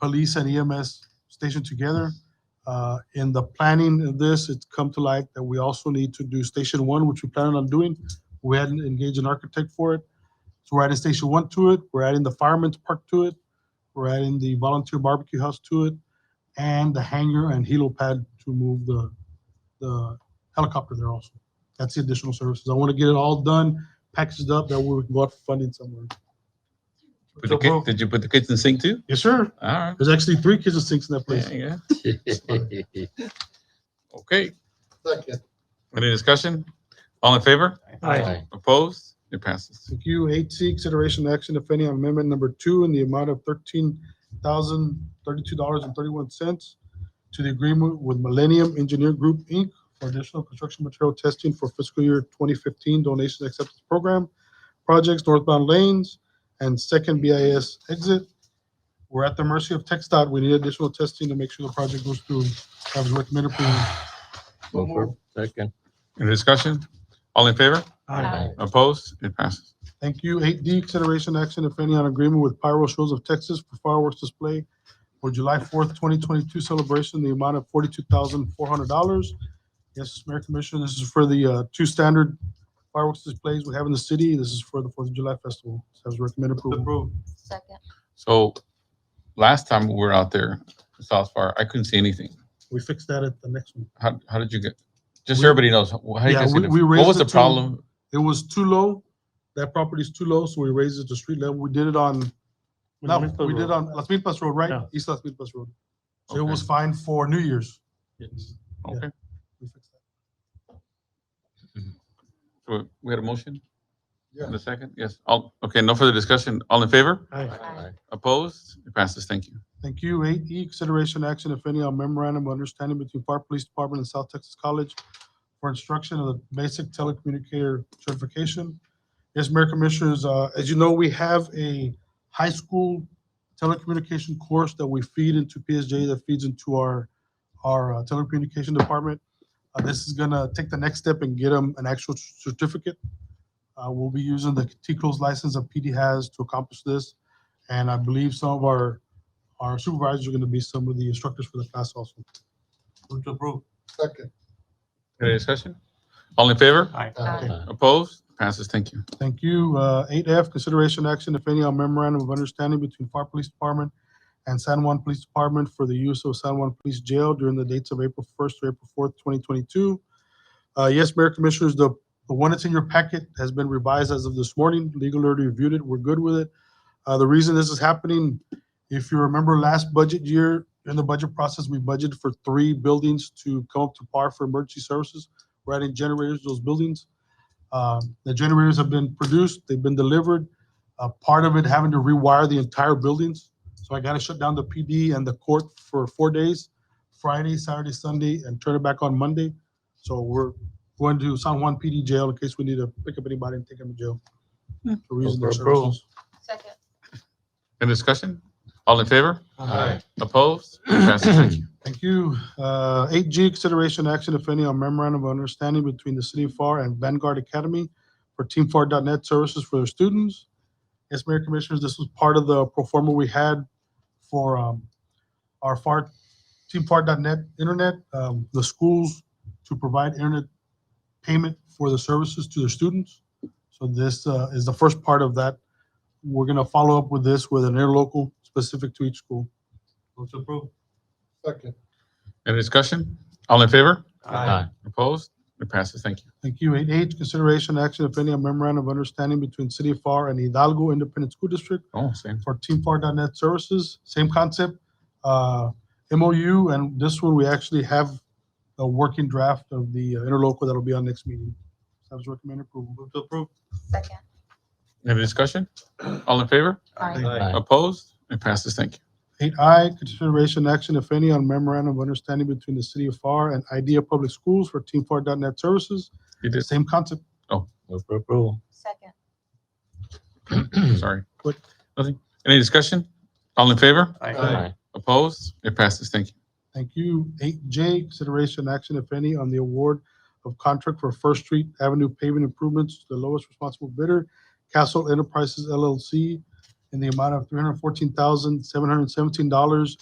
police and EMS station together. Uh, In the planning of this, it's come to light that we also need to do Station One, which we planned on doing. We hadn't engaged an architect for it. So we're adding Station One to it, we're adding the Fireman's Park to it, we're adding the Volunteer Barbecue House to it, and the hangar and helipad to move the, the helicopter there also. That's the additional services. I want to get it all done, packaged up, that way we can go out for funding somewhere. Put the ki- Did you put the kitchen sink too? Yes, sir. All right. There's actually three kitchen sinks in that place. Yeah, yeah. Second. Okay. Any discussion? All in favor? Opposed? It passes. Thank you. Eight C, consideration action, if any, on amendment number two in the amount of thirteen thousand thirty-two dollars and thirty-one cents to the agreement with Millennium Engineer Group, Inc. for additional construction material testing for fiscal year twenty fifteen donation acceptance program, projects northbound lanes and second BIS exit. We're at the mercy of Tech Dot. We need additional testing to make sure the project goes through. I was recommended approval. Second. Any discussion? All in favor? Opposed? It passes. Thank you. Eight D, consideration action, if any, on agreement with Pyro Shows of Texas for fireworks display for July fourth, twenty twenty-two celebration, the amount of forty-two thousand four hundred dollars. Yes, Mayor Commissioner, this is for the uh, two standard fireworks displays we have in the city. This is for the Fourth of July Festival. So I recommend approval. Second. So last time we were out there, South Far, I couldn't see anything. We fix that at the next one. How, how did you get? Just We- so everybody knows, how how you Yeah, guys, we- get it? we what raised was it the to- problem? It was too low. That property's too low, so we raised it to street level. We did it on, no, we did on Las Milpas Road, right? Yeah. East Las Milpas Road. So it Okay. was fine for New Year's. yeah. Okay. We fixed that. So We had a motion? Yeah. And a second? Yes. All, okay, no further discussion. All in favor? Aye. Opposed? It passes. Thank you. Thank you. Eight E, consideration action, if any, on memorandum of understanding between Park Police Department and South Texas College for instruction of the basic telecommunicator certification. Yes, Mayor Commissioners, uh, as you know, we have a high school telecommunication course that we feed into PSJ that feeds into our, our uh, telecommunication department. Uh, This is gonna take the next step and get them an actual certificate. Uh, We'll be using the T-Close license that PD has to accomplish this. And I believe some of our our supervisors are going to be some of the instructors for the class also. Move to approve. Second. Any discussion? All in favor? Aye. Opposed? Passes. Thank you. Thank you. Uh, Eight F, consideration action, if any, on memorandum of understanding between FAR Police Department and San Juan Police Department for the use of San Juan Police Jail during the dates of April first to April fourth, twenty twenty-two. Uh, Yes, Mayor Commissioners, the, the one that's in your packet has been revised as of this morning. Legal already reviewed it. We're good with it. Uh, The reason this is happening, if you remember last budget year, in the budget process, we budgeted for three buildings to come up to par for emergency services. We're adding generators to those buildings. Um, The generators have been produced, they've been delivered. Uh, Part of it having to rewire the entire buildings. So I got to shut down the PD and the court for four days, Friday, Saturday, Sunday, and turn it back on Monday. So we're going to San Juan PD jail in case we need to pick up anybody and take them to jail. For reasons of Approval. services. Second. Any discussion? All in favor? Aye. Opposed? It passes. Thank you. Thank you. Uh, Eight G, consideration action, if any, on memorandum of understanding between the City of FAR and Vanguard Academy for teamfAR.net services for their students. Yes, Mayor Commissioners, this was part of the pro forma we had for um, our FAR, teamfAR.net internet, um, the schools to provide internet payment for the services to their students. So this uh, is the first part of that. We're going to follow up with this with an interlocal specific to each school. Move to approve. Second. Any discussion? All in favor? Aye. Opposed? It passes. Thank you. Thank you. Eight H, consideration action, if any, on memorandum of understanding between City of FAR and Hidalgo Independent School District Oh, same. for teamfAR.net services, same concept. uh, MOU, and this one, we actually have a working draft of the uh, interlocal that'll be on next meeting. I was recommend approval. Move to approve. Second. Any discussion? All in favor? Aye. Opposed? It passes. Thank you. Eight I, consideration action, if any, on memorandum of understanding between the City of FAR and Idea Public Schools for teamfAR.net services, You did, same concept. Move for approval. Second. sorry. What? Nothing. Any discussion? All in favor? Aye. Opposed? It passes. Thank you. Thank you. Eight J, consideration action, if any, on the award of contract for First Street Avenue pavement improvements to the lowest responsible bidder, Castle Enterprises LLC, in the amount of three hundred fourteen thousand, seven hundred seventeen dollars